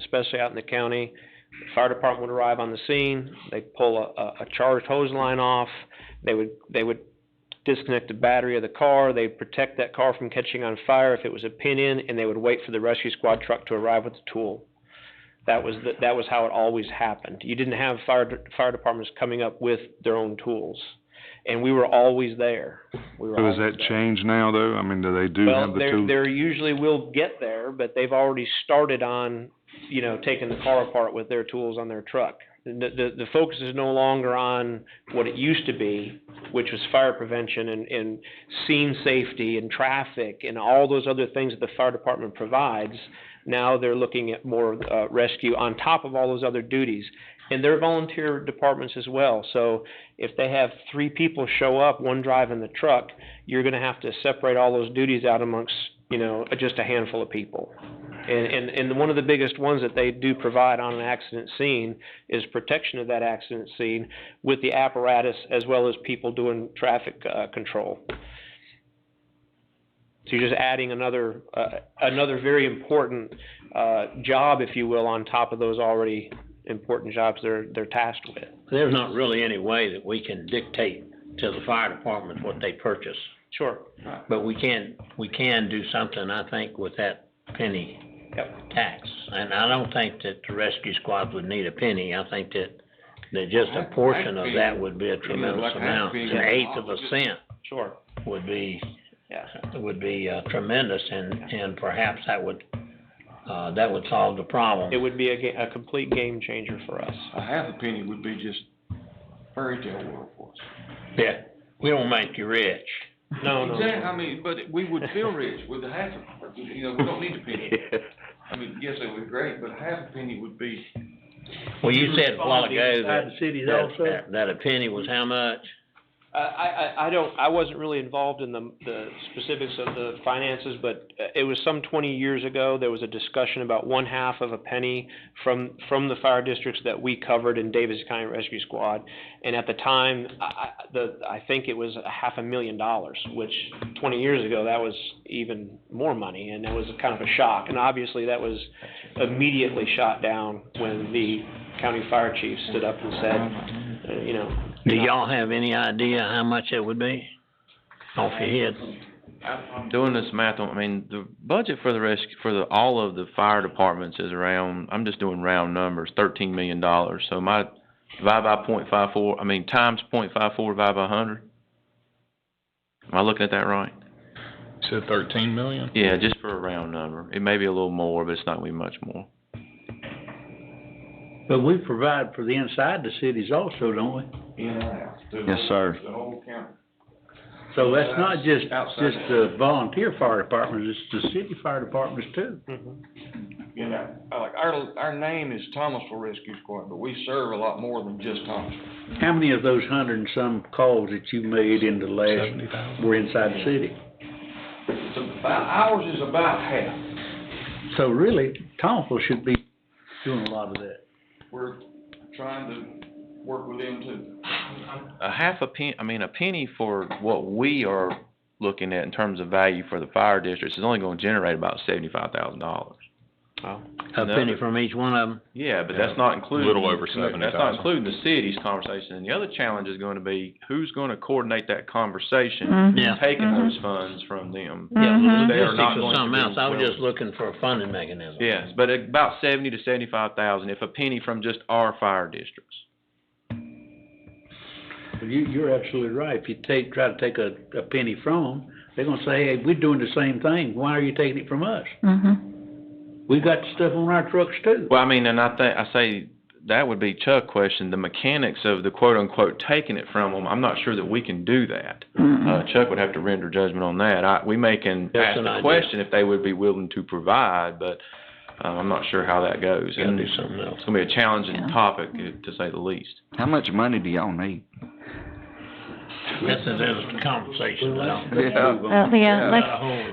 especially out in the county. The Fire department would arrive on the scene, they'd pull a, a, a charged hose line off, they would, they would disconnect the battery of the car, they'd protect that car from catching on fire if it was a pin-in, and they would wait for the rescue squad truck to arrive with the tool. That was, the- that was how it always happened. You didn't have fire, de- fire departments coming up with their own tools. And we were always there. We were So always is that there. changed now though? I mean, do they do have Well, the they're, tools? they're usually will get there, but they've already started on, you know, taking the car apart with their tools on their truck. The, the, the focus is no longer on what it used to be, which was fire prevention and, and scene safety and traffic and all those other things that the fire department provides. Now they're looking at more, uh, rescue on top of all those other duties. And they're volunteer departments as well, so if they have three people show up, one driving the truck, you're gonna have to separate all those duties out amongst, you know, just a handful of people. And, and, and one of the biggest ones that they do provide on an accident scene is protection of that accident scene with the apparatus as well as people doing traffic, uh, control. So you're just adding another, uh, another very important, uh, job, if you will, on top of those already important jobs they're, they're tasked with. There's not really any way that we can dictate to the fire department what they purchase, Sure. but we can, we can do something, I think, with that penny Yep. tax. And I don't think that the rescue squad would need a penny, I think that, that just a portion of that would be a tremendous amount. An eighth of a cent Sure. would be, Yeah. would be uh, tremendous, and, and perhaps that would, uh, that would solve the problem. It would be a ga- a complete game changer for us. A half a penny would be just fairy tale world for us. Yeah, we don't make you rich. No, Oh, no, Exactly, no. I mean, but we would feel rich with a half a, you know, we don't need a penny. I mean, yes, it would be great, but a half a penny would be, Well, you said a while ago Inside that, the cities that- also, that, that a penny was how much? Uh, I, I, I don't, I wasn't really involved in the, the specifics of the finances, but uh, it was some twenty years ago, there was a discussion about one half of a penny from, from the fire districts that we covered in Davis County Rescue Squad. And at the time, I, I, the, I think it was a half a million dollars, which twenty years ago, that was even more money, and that was kind of a shock. And obviously, that was immediately shot down when the county fire chief stood up and said, uh, you know. Do y'all have any idea how much it would be? Off your head? I'm doing this math on, I mean, the budget for the rescue, for the, all of the fire departments is around, I'm just doing round numbers, thirteen million dollars. So my, divide by point five four, I mean, times point five four, divide by hundred. Am I looking at that right? Said thirteen million? Yeah, just for a round number. It may be a little more, but it's not gonna be much more. but we provide for the inside the cities also, don't we? in and out. the Yes, whole- sir. The whole county. So that's not just, Outside. just uh, the volunteer fire departments, it's the city fire departments too. You know, I like, our, our name is Thomasville Rescue Squad, but we serve a lot more than just Thomasville. How many of those hundred and some calls that you made in the Seventy last thousand. were inside the city? It's about, ours is about half. So really, Thomasville should be doing a lot of that. We're trying to work with them too. A half a pen, I mean, a penny for what we are looking at in terms of value for the fire districts is only gonna generate about seventy-five thousand dollars. Wow. A penny from each one of them? Yeah, but Yeah, that's not including. little over That's not 70,000. including the city's conversation, and the other challenge is gonna be, who's gonna coordinate that conversation? Yeah. Taking those funds from them. Yeah, They are logistics not or going to something be else. I was willing- just looking for a funding mechanism. Yes, but about seventy to seventy-five thousand, if a penny from just our fire districts. Well, You, you're absolutely right. If you take, try to take a, a penny from them, they're gonna say, hey, we're doing the same thing. Why are you taking it from us? We've got stuff on our trucks too. Well, I mean, and I think, I say, that would be Chuck's question, the mechanics of the quote-unquote taking it from them, I'm not sure that we can do that. Uh, Chuck would have to render judgment on that. I, we may can That's ask an the idea. question if they would be willing to provide, but, uh, I'm not sure how that goes. Gotta And do something else. It's gonna be a challenging topic, uh, to say the least. How much money do y'all need? That's a different conversation now. Uh, yeah,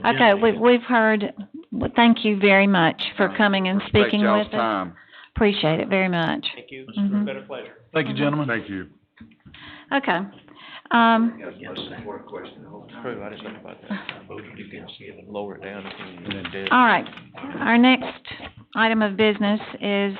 let's, okay, we, we've heard, well, thank you very much for coming and speaking with Respect y'all's us. time. Appreciate it very much. Thank you. Mhm. Been a pleasure. Thank you, gentlemen. Thank you. Okay. Um, True, I didn't know about that. Lower it down if you And then- did. all right, our next item of business is